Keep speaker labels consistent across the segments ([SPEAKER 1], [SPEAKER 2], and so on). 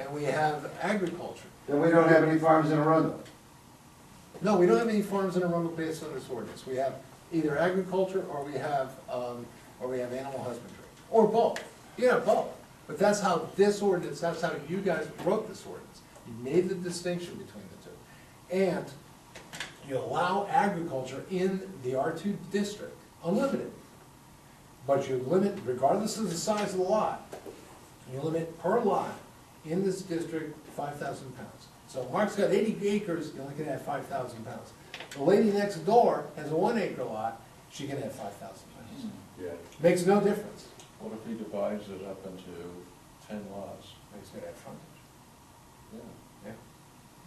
[SPEAKER 1] and we have agriculture.
[SPEAKER 2] Then we don't have any farms in Arundel.
[SPEAKER 1] No, we don't have any farms in Arundel based on this ordinance. We have either agriculture or we have, um, or we have animal husbandry, or both. Yeah, both. But that's how this ordinance, that's how you guys wrote this ordinance. You made the distinction between the two. And you allow agriculture in the R two district, unlimited. But you limit, regardless of the size of the lot, you limit per lot in this district five thousand pounds. So Mark's got eighty acres, you only can have five thousand pounds. The lady next door has a one acre lot, she can have five thousand pounds.
[SPEAKER 3] Yeah.
[SPEAKER 1] Makes no difference.
[SPEAKER 3] What if he divides it up into ten lots?
[SPEAKER 1] Makes good at frontage.
[SPEAKER 3] Yeah.
[SPEAKER 1] Yeah.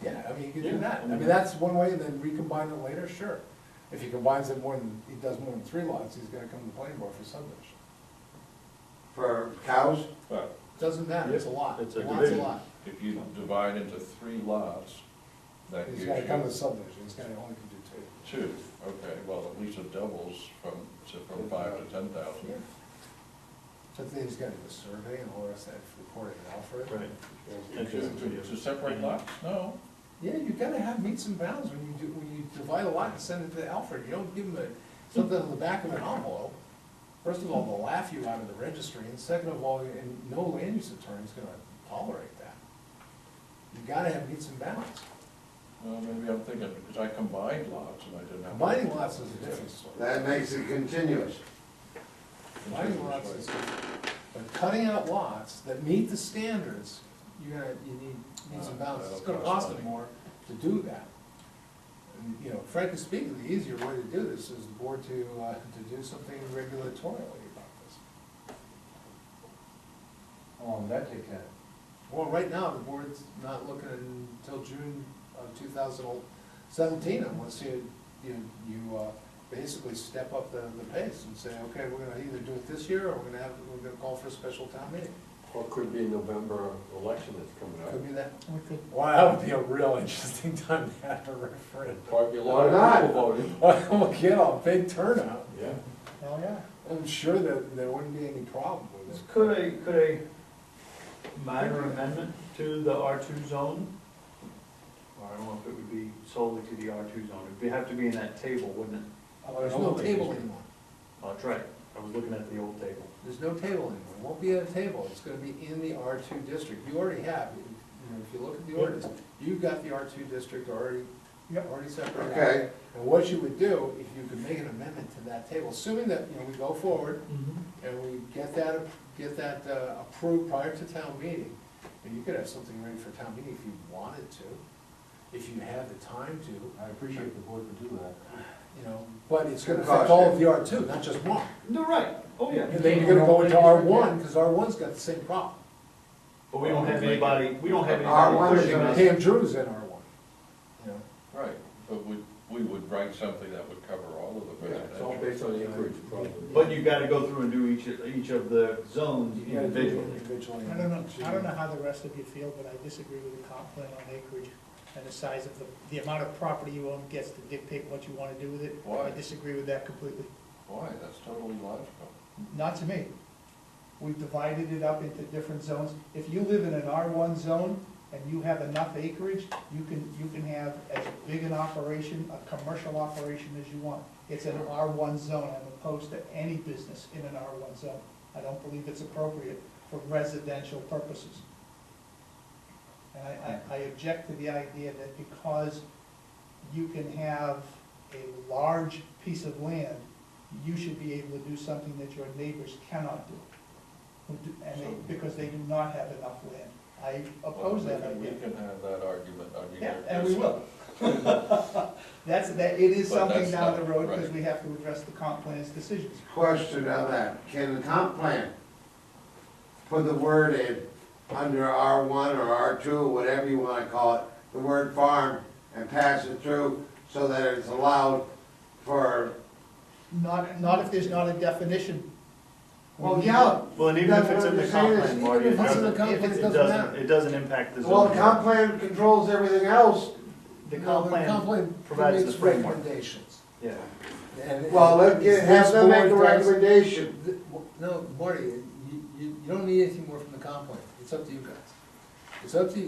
[SPEAKER 1] Yeah, I mean, you could do
[SPEAKER 3] Yeah,
[SPEAKER 1] that.
[SPEAKER 3] I
[SPEAKER 1] I mean,
[SPEAKER 3] mean-
[SPEAKER 1] that's one way, and then recombine it later, sure. If he combines it more than, he does more than three lots, he's gonna come to the planning board for subdivision.
[SPEAKER 2] For cows?
[SPEAKER 3] But
[SPEAKER 1] Doesn't matter, it's a lot.
[SPEAKER 4] It's a
[SPEAKER 1] Lot's
[SPEAKER 4] division.
[SPEAKER 1] lot.
[SPEAKER 3] if you divide into three lots, that gives
[SPEAKER 1] He's
[SPEAKER 3] you.
[SPEAKER 1] gotta come to subdivision, he's gonna only can do two.
[SPEAKER 3] Two, okay, well, at least it doubles from, to- from five to ten thousand.
[SPEAKER 1] So then he's gotta do a survey and all the rest of that, report it out for it.
[SPEAKER 4] Right.
[SPEAKER 3] To, to- to separate lots, no,
[SPEAKER 1] Yeah, you gotta have meets and bounds when you do, when you divide a lot and send it to Alfred, you don't give him a, something on the back of an envelope. First of all, they'll laugh you out of the registry, and second of all, and no land use attorney's gonna tolerate that. You gotta have meets and bounds.
[SPEAKER 3] well, maybe I'm thinking, because I combined lots and I didn't have.
[SPEAKER 1] Combining lots is a different story.
[SPEAKER 2] That makes it continuous.
[SPEAKER 1] Combining lots is, but cutting out lots that meet the standards, you gotta, you need meets and bounds, it's gonna cost them more to do that. And, you know, frankly speaking, the easier way to do this is the board to, uh, to do something regulatorily about this.
[SPEAKER 2] How long that take that?
[SPEAKER 1] Well, right now, the board's not looking until June of two thousand seventeen, unless you, you, you, uh, basically step up the, the pace and say, okay, we're gonna either do it this year, or we're gonna have, we're gonna call for a special town meeting.
[SPEAKER 5] Or could be November election that's coming
[SPEAKER 1] Could
[SPEAKER 5] up.
[SPEAKER 1] be that. Wow, that would be a real interesting time to have a referendum.
[SPEAKER 5] Probably a
[SPEAKER 2] Why not?
[SPEAKER 5] lot of people voting.
[SPEAKER 1] We'll get a big turnout.
[SPEAKER 5] Yeah.
[SPEAKER 6] Hell, yeah.
[SPEAKER 1] I'm sure that there wouldn't be any problem with it.
[SPEAKER 6] Could a, could a minor amendment to the R two zone? Or I don't know if it would be solely to the R two zone, it'd be- have to be in that table, wouldn't it?
[SPEAKER 1] There's no table anymore.
[SPEAKER 6] Oh, That's right, I was looking at the old table.
[SPEAKER 1] There's no table anymore, It won't be at a table, it's gonna be in the R two district, you already have, you know, if you look at the ordinance, you've got the R two district already, already separated out.
[SPEAKER 2] Okay.
[SPEAKER 1] And what you would do, if you could make an amendment to that table, assuming that, you know, we go forward
[SPEAKER 7] Mm-hmm.
[SPEAKER 1] and we get that, get that uh, approved prior to town meeting, and you could have something ready for town meeting if you wanted to, if you had the time to,
[SPEAKER 7] I appreciate the board would do that.
[SPEAKER 1] you know, but it's gonna affect
[SPEAKER 2] Cost
[SPEAKER 1] all
[SPEAKER 2] you.
[SPEAKER 1] of the R two, not just one.
[SPEAKER 6] No, right, oh, yeah.
[SPEAKER 1] And then you're gonna go into R one, because R one's got the same problem.
[SPEAKER 6] But we don't have anybody, we don't have
[SPEAKER 2] R1
[SPEAKER 6] anybody
[SPEAKER 2] is
[SPEAKER 6] pushing
[SPEAKER 2] gonna
[SPEAKER 6] us.
[SPEAKER 1] Pam Drew's in R one, you know,
[SPEAKER 3] Right, but we, we would write something that would cover all of the
[SPEAKER 5] Yeah, it's all
[SPEAKER 3] residential.
[SPEAKER 5] based on the acreage problem.
[SPEAKER 6] But you gotta go through and do each, each of the zones
[SPEAKER 1] you gotta do it
[SPEAKER 6] individually.
[SPEAKER 1] individually.
[SPEAKER 8] I don't know, I don't know how the rest of you feel, but I disagree with the comp plan on acreage and the size of the, the amount of property you own gets to dictate what you wanna do with it.
[SPEAKER 3] Why?
[SPEAKER 8] I disagree with that completely,
[SPEAKER 3] Why, that's totally logical.
[SPEAKER 8] not to me. We've divided it up into different zones. If you live in an R one zone and you have enough acreage, you can, you can have as big an operation, a commercial operation as you want. It's an R one zone, I'm opposed to any business in an R one zone. I don't believe it's appropriate for residential purposes. And I, I, I object to the idea that because you can have a large piece of land, you should be able to do something that your neighbors cannot do. Who do- And they, because they do not have enough land. I oppose that
[SPEAKER 3] Well, we
[SPEAKER 8] idea.
[SPEAKER 3] can- We can have that argument, I mean.
[SPEAKER 8] Yeah,
[SPEAKER 3] there-
[SPEAKER 8] and we will. That's, that, it is
[SPEAKER 3] But
[SPEAKER 8] something
[SPEAKER 3] that's
[SPEAKER 8] down the
[SPEAKER 3] not
[SPEAKER 8] road, because
[SPEAKER 3] right.
[SPEAKER 8] we have to address the comp plan's decisions.
[SPEAKER 2] Question on that, can the comp plan put the word in, under R one or R two, whatever you wanna call it, the word farm, and pass it through so that it's allowed for,
[SPEAKER 8] Not, not if there's not a definition.
[SPEAKER 2] well, yeah,
[SPEAKER 6] Well, and even if it's in the comp plan, Marty, it
[SPEAKER 1] Even if it's in the
[SPEAKER 6] doesn't,
[SPEAKER 1] comp plan, it
[SPEAKER 6] it
[SPEAKER 1] doesn't
[SPEAKER 6] doesn't,
[SPEAKER 1] matter.
[SPEAKER 6] it doesn't impact the zone.
[SPEAKER 2] well, the comp plan controls everything else.
[SPEAKER 6] The
[SPEAKER 1] No,
[SPEAKER 6] comp plan provides the
[SPEAKER 1] makes
[SPEAKER 6] framework.
[SPEAKER 1] Recommendations.
[SPEAKER 6] Yeah.
[SPEAKER 1] And-
[SPEAKER 2] Well, let, get- have them make a
[SPEAKER 1] This board does-
[SPEAKER 2] recommendation.
[SPEAKER 1] Th- No, Marty, you, you, you don't need anything more from the comp plan, it's up to you guys. It's up to you.